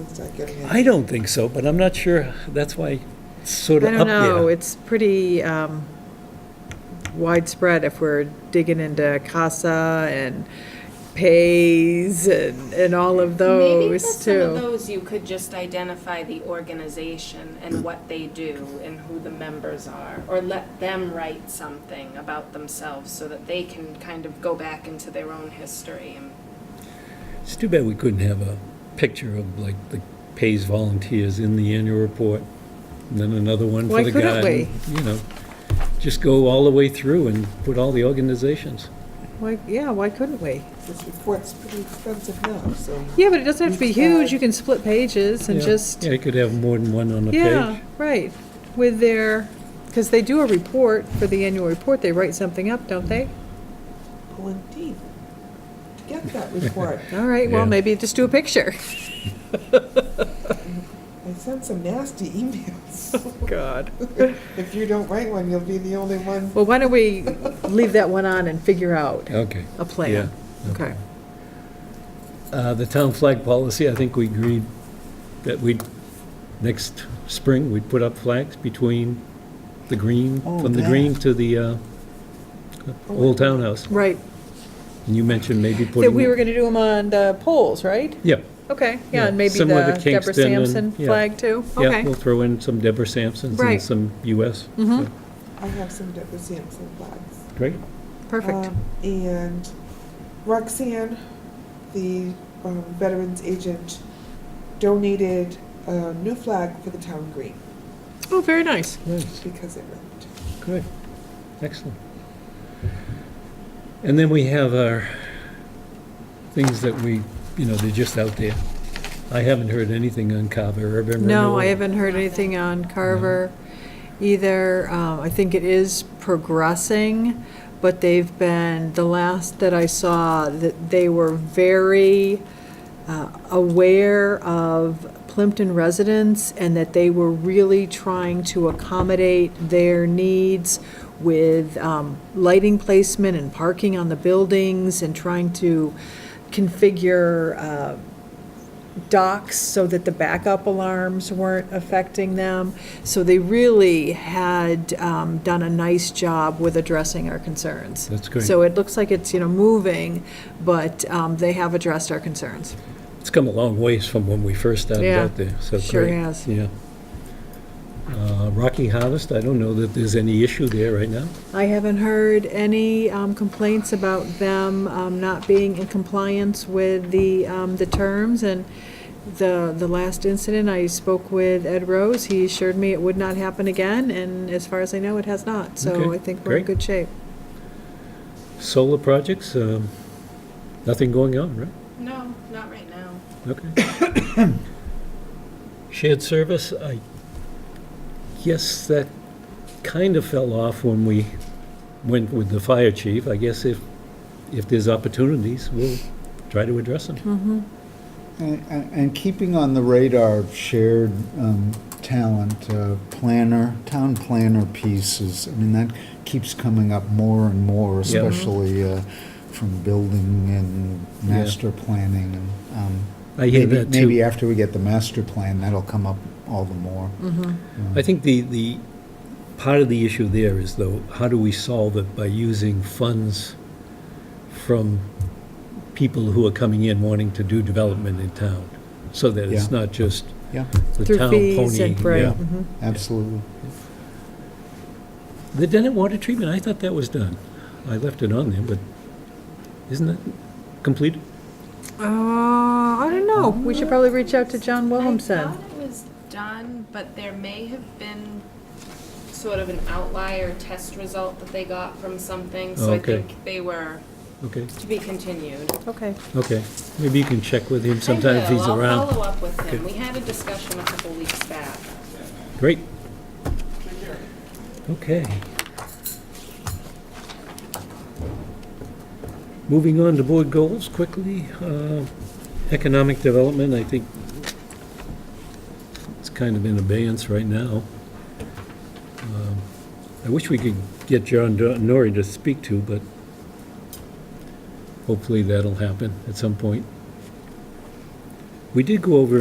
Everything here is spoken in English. It's not getting any- I don't think so, but I'm not sure, that's why it's sort I of don't up know, there. it's pretty um, widespread if we're digging into CASA and pays and, and all of Maybe for those some of too. those, you could just identify the organization and what they do and who the members are, or let them write something about themselves so that they can kind of go back into their own history. and- It's too bad we couldn't have a picture of like the pays volunteers in the annual report, and then another one Why for the couldn't garden. You know, just go all the way through and put all the organizations. Why, yeah, why couldn't we? This report's pretty expensive now, so. Yeah, but it doesn't have to be Each side. huge, you can split pages and Yeah. just, Yeah, you could have more than one on a yeah, page. right, with their, because they do a report for the annual report, they write something up, don't they? Oh, indeed. To get that report, All right, well, Yeah. maybe just do a picture. I sent some nasty emails. God. If you don't write one, you'll be the only one. Well, why don't we leave that one on and figure out Okay. a Yeah. plan? Okay. Uh, The town flag policy, I think we agreed that we, next spring, we'd put up flags between the green, Oh, from the that. green to the uh, Oh, Old Town House. Right, And you mentioned maybe that putting. we were going to do them on the poles, right? Yeah, Okay, Yeah, yeah, and maybe the similar to Deborah Kingston and- Sampson yeah. flag too? yeah, Okay, we'll throw in some Deborah Sampsons and Right. some US. Mhm. I have some Deborah Sampson flags. Great. perfect. Um, And Roxanne, the um, Veterans Agent, donated a new flag for the town green Oh, very nice. Nice, because it ripped. good, excellent. And then we have our things that we, you know, they're just out there. I haven't heard anything on Carver or Emerald. No, I haven't heard anything on Carver either. Um, I think it is progressing, but they've been, the last that I saw, that they were very uh, aware of Plimpton residents and that they were really trying to accommodate their needs with um, lighting placement and parking on the buildings and trying to configure uh, docks so that the backup alarms weren't affecting them. So they really had um, done a nice job with addressing our concerns. That's great. So it looks like it's, you know, moving, but um, they have addressed our concerns. It's come a long ways from when we first started Yeah, out there, so great. sure has. Yeah. Uh, Rocky Harvest, I don't know that there's any issue there right now. I haven't heard any um, complaints about them um, not being in compliance with the, um, the terms. And the, the last incident, I spoke with Ed Rose, he assured me it would not happen again, and as far as I know, it has not. So Okay, I think we're in great. good shape. Solar projects, um, nothing going on, right? No, not right now. Okay. Shared service, I guess that kind of fell off when we went with the fire chief. I guess if, if there's opportunities, we'll try to address them. And, and- and keeping on the radar of shared um, talent, uh, planner, town planner pieces, I mean, that keeps coming up more and more, Yeah. Mhm. especially uh, from building and Yeah. master planning. and, um, I hear maybe- that too. Maybe after we get the master plan, that'll come up all the more. Mm-hmm. I think the, the, part of the issue there is though, how do we solve it by using funds from people who are coming in wanting to do development in town? So that it's Yeah. not just Yeah, the Through town pony. fees and- right, yeah. mhm. absolutely. The Dennett water treatment, I thought that was done. I left it on there, but isn't it completed? Uh, I don't know. We should probably reach out to John I Williamson. thought it was done, but there may have been sort of an outlier test result that they got from something, so I Okay. think they were Okay, to be continued. Okay. okay. Maybe you can check with him sometime if I he's will. I'll around. follow up with him. We had a discussion a couple weeks back. Great. Okay. Moving on to board goals quickly. Uh, Economic development, I think it's kind of in abeyance right now. Um, I wish we could get John Do- Norrie to speak to, but hopefully that'll happen at some point. We did go over